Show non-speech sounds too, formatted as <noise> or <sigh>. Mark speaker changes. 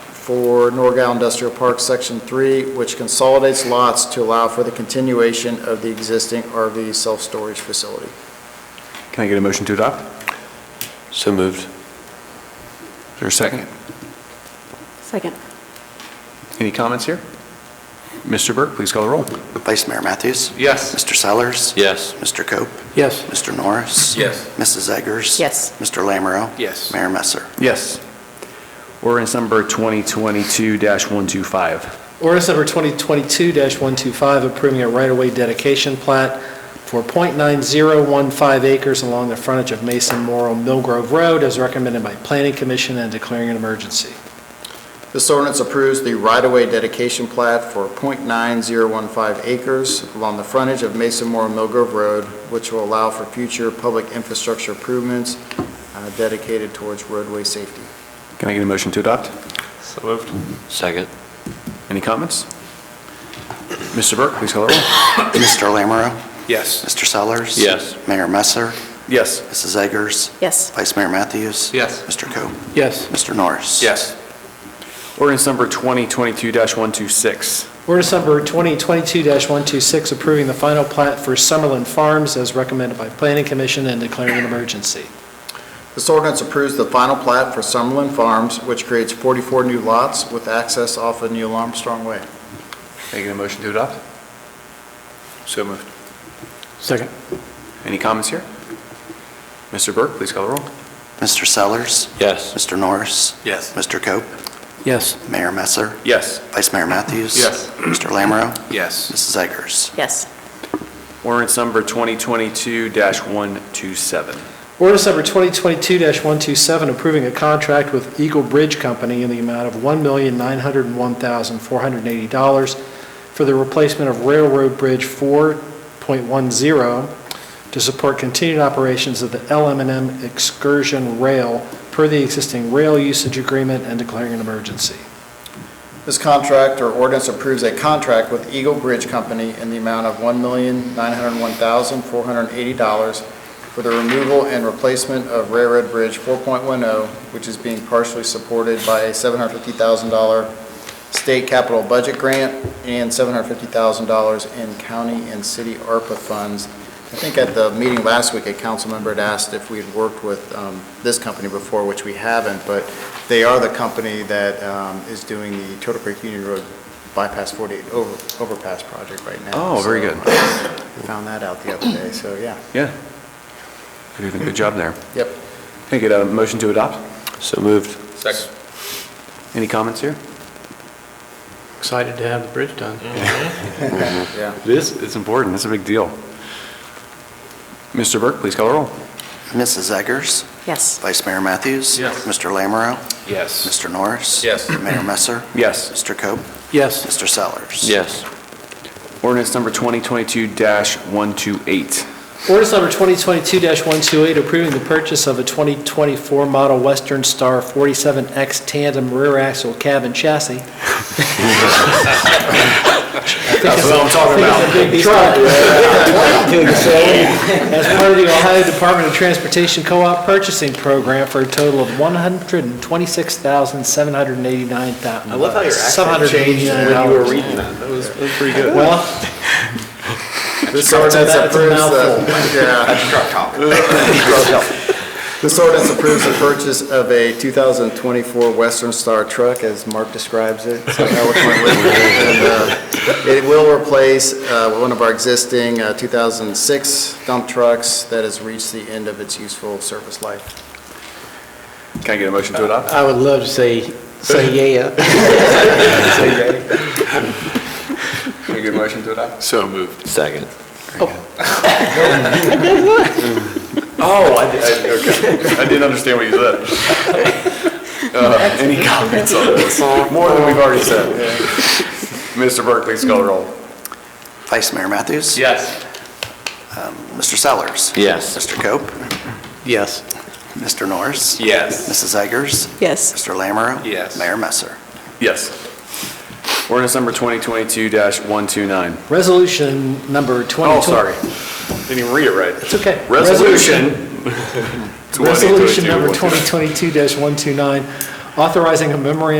Speaker 1: for Norgal Industrial Park, Section 3, which consolidates lots to allow for the continuation of the existing RV self-storage facility.
Speaker 2: Can I get a motion to adopt?
Speaker 3: So moved.
Speaker 2: Is there a second?
Speaker 4: Second.
Speaker 2: Any comments here? Mr. Burke, please call the roll.
Speaker 5: Vice Mayor Matthews?
Speaker 2: Yes.
Speaker 5: Mr. Sellers?
Speaker 3: Yes.
Speaker 5: Mr. Cope?
Speaker 3: Yes.
Speaker 5: Mr. Norris?
Speaker 3: Yes.
Speaker 5: Mrs. Eggers?
Speaker 4: Yes.
Speaker 5: Mr. Lammerow?
Speaker 3: Yes.
Speaker 5: Mayor Messer?
Speaker 2: Yes. Ordinance number 2022-125.
Speaker 6: Ordinance number 2022-125, approving a right-of-way dedication plat for .9015 acres along the frontage of Mason Morrow Mill Grove Road, as recommended by Planning Commission and declaring an emergency.
Speaker 1: This ordinance approves the right-of-way dedication plat for .9015 acres along the frontage of Mason Moore Mill Grove Road, which will allow for future public infrastructure improvements uh, dedicated towards roadway safety.
Speaker 2: Can I get a motion to adopt?
Speaker 3: So moved. Second.
Speaker 2: Any comments? Mr. Burke, please call the roll.
Speaker 5: Mr. Lammerow?
Speaker 2: Yes.
Speaker 5: Mr. Sellers?
Speaker 3: Yes.
Speaker 5: Mayor Messer?
Speaker 2: Yes.
Speaker 5: Mrs. Eggers?
Speaker 4: Yes.
Speaker 5: Vice Mayor Matthews?
Speaker 3: Yes.
Speaker 5: Mr. Cope?
Speaker 6: Yes.
Speaker 5: Mr. Norris?
Speaker 2: Yes. Ordinance number 2022-126.
Speaker 6: Ordinance number 2022-126, approving the final plat for Summerlin Farms, as recommended by Planning Commission and declaring an emergency.
Speaker 1: This ordinance approves the final plat for Summerlin Farms, which creates 44 new lots with access off of Neil Armstrong Way.
Speaker 2: Can I get a motion to adopt? So moved.
Speaker 6: Second.
Speaker 2: Any comments here? Mr. Burke, please call the roll.
Speaker 5: Mr. Sellers?
Speaker 3: Yes.
Speaker 5: Mr. Norris?
Speaker 2: Yes.
Speaker 5: Mr. Cope?
Speaker 6: Yes.
Speaker 5: Mayor Messer?
Speaker 2: Yes.
Speaker 5: Vice Mayor Matthews?
Speaker 2: Yes.
Speaker 5: Mr. Lammerow?
Speaker 2: Yes.
Speaker 5: Mrs. Eggers?
Speaker 4: Yes.
Speaker 2: Ordinance number 2022-127.
Speaker 6: Ordinance number 2022-127, approving a contract with Eagle Bridge Company in the amount of $1,901,480 for the replacement of Railroad Bridge 4.10 to support continued operations of the LM&M Excursion Rail per the existing rail usage agreement and declaring an emergency.
Speaker 1: This contract or ordinance approves a contract with Eagle Bridge Company in the amount of $1,901,480 for the removal and replacement of Railroad Bridge 4.10, oh, which is being partially supported by a $750,000 state capital budget grant and $750,000 in county and city ARPA funds. I think at the meeting last week, a council member had asked if we had worked with um, this company before, which we haven't, but they are the company that um, is doing the Turtle Creek Union Road bypass 48 over- overpass project right now.
Speaker 2: Oh, very
Speaker 1: So,
Speaker 2: good.
Speaker 1: I Found that out the other day, so yeah.
Speaker 2: Yeah. You're doing a good job there.
Speaker 1: Yep.
Speaker 2: Can I get a motion to adopt?
Speaker 3: So moved.
Speaker 2: Second. Any comments here?
Speaker 7: Excited to have the bridge done.
Speaker 1: Yeah.
Speaker 2: This is important. It's a big deal. Mr. Burke, please call the roll.
Speaker 5: Mrs. Eggers?
Speaker 4: Yes.
Speaker 5: Vice Mayor Matthews?
Speaker 7: Yes.
Speaker 5: Mr. Lammerow?
Speaker 2: Yes.
Speaker 5: Mr. Norris?
Speaker 7: Yes.
Speaker 5: Mayor Messer?
Speaker 2: Yes.
Speaker 5: Mr. Cope?
Speaker 7: Yes.
Speaker 5: Mr. Sellers?
Speaker 3: Yes.
Speaker 2: Ordinance number 2022-128.
Speaker 6: Ordinance number 2022-128, approving the purchase of a 2024 model Western Star 47X tandem rear axle cab and chassis. I think it's-
Speaker 2: what I'm talking
Speaker 6: I think it's a
Speaker 2: <laughs>
Speaker 6: big deal. As part of the Ohio Department of Transportation Co-op Purchasing Program for a total of $126,789. I love how your accent changed when you were reading that. That was pretty good. Well, <laughs>
Speaker 1: This ordinance
Speaker 6: That's a
Speaker 1: approves the,
Speaker 6: mouthful.
Speaker 1: <laughs> yeah. <laughs> This ordinance approves the purchase of a 2024 Western Star truck, as Mark describes it. So that was my word. And, uh, It will replace uh, one of our existing uh, 2006 dump trucks that has reached the end of its useful service life.
Speaker 2: Can I get a motion to adopt? <laughs>
Speaker 7: I would love to say, say yeah.
Speaker 2: Can I get a motion to adopt?
Speaker 3: So moved. Second.
Speaker 2: <laughs> Oh, I did, I- okay. I didn't understand what you said. Uh, Any comments on this? More than we've already said. Mr. Burke, please call the roll.
Speaker 5: Vice Mayor Matthews?
Speaker 7: Yes.
Speaker 5: Mr. Sellers?
Speaker 3: Yes.
Speaker 5: Mr. Cope?
Speaker 7: Yes.
Speaker 5: Mr. Norris?
Speaker 3: Yes.
Speaker 5: Mrs. Eggers?
Speaker 4: Yes.
Speaker 5: Mr. Lammerow?
Speaker 3: Yes.
Speaker 5: Mayor Messer?
Speaker 2: Yes. Ordinance number 2022-129.
Speaker 6: Resolution number 20...
Speaker 2: Oh, sorry. Didn't even read it right.
Speaker 6: It's okay.
Speaker 2: <laughs> Resolution.
Speaker 6: Resolution number
Speaker 2: 2022-129.
Speaker 6: 2022-129, authorizing a memorandum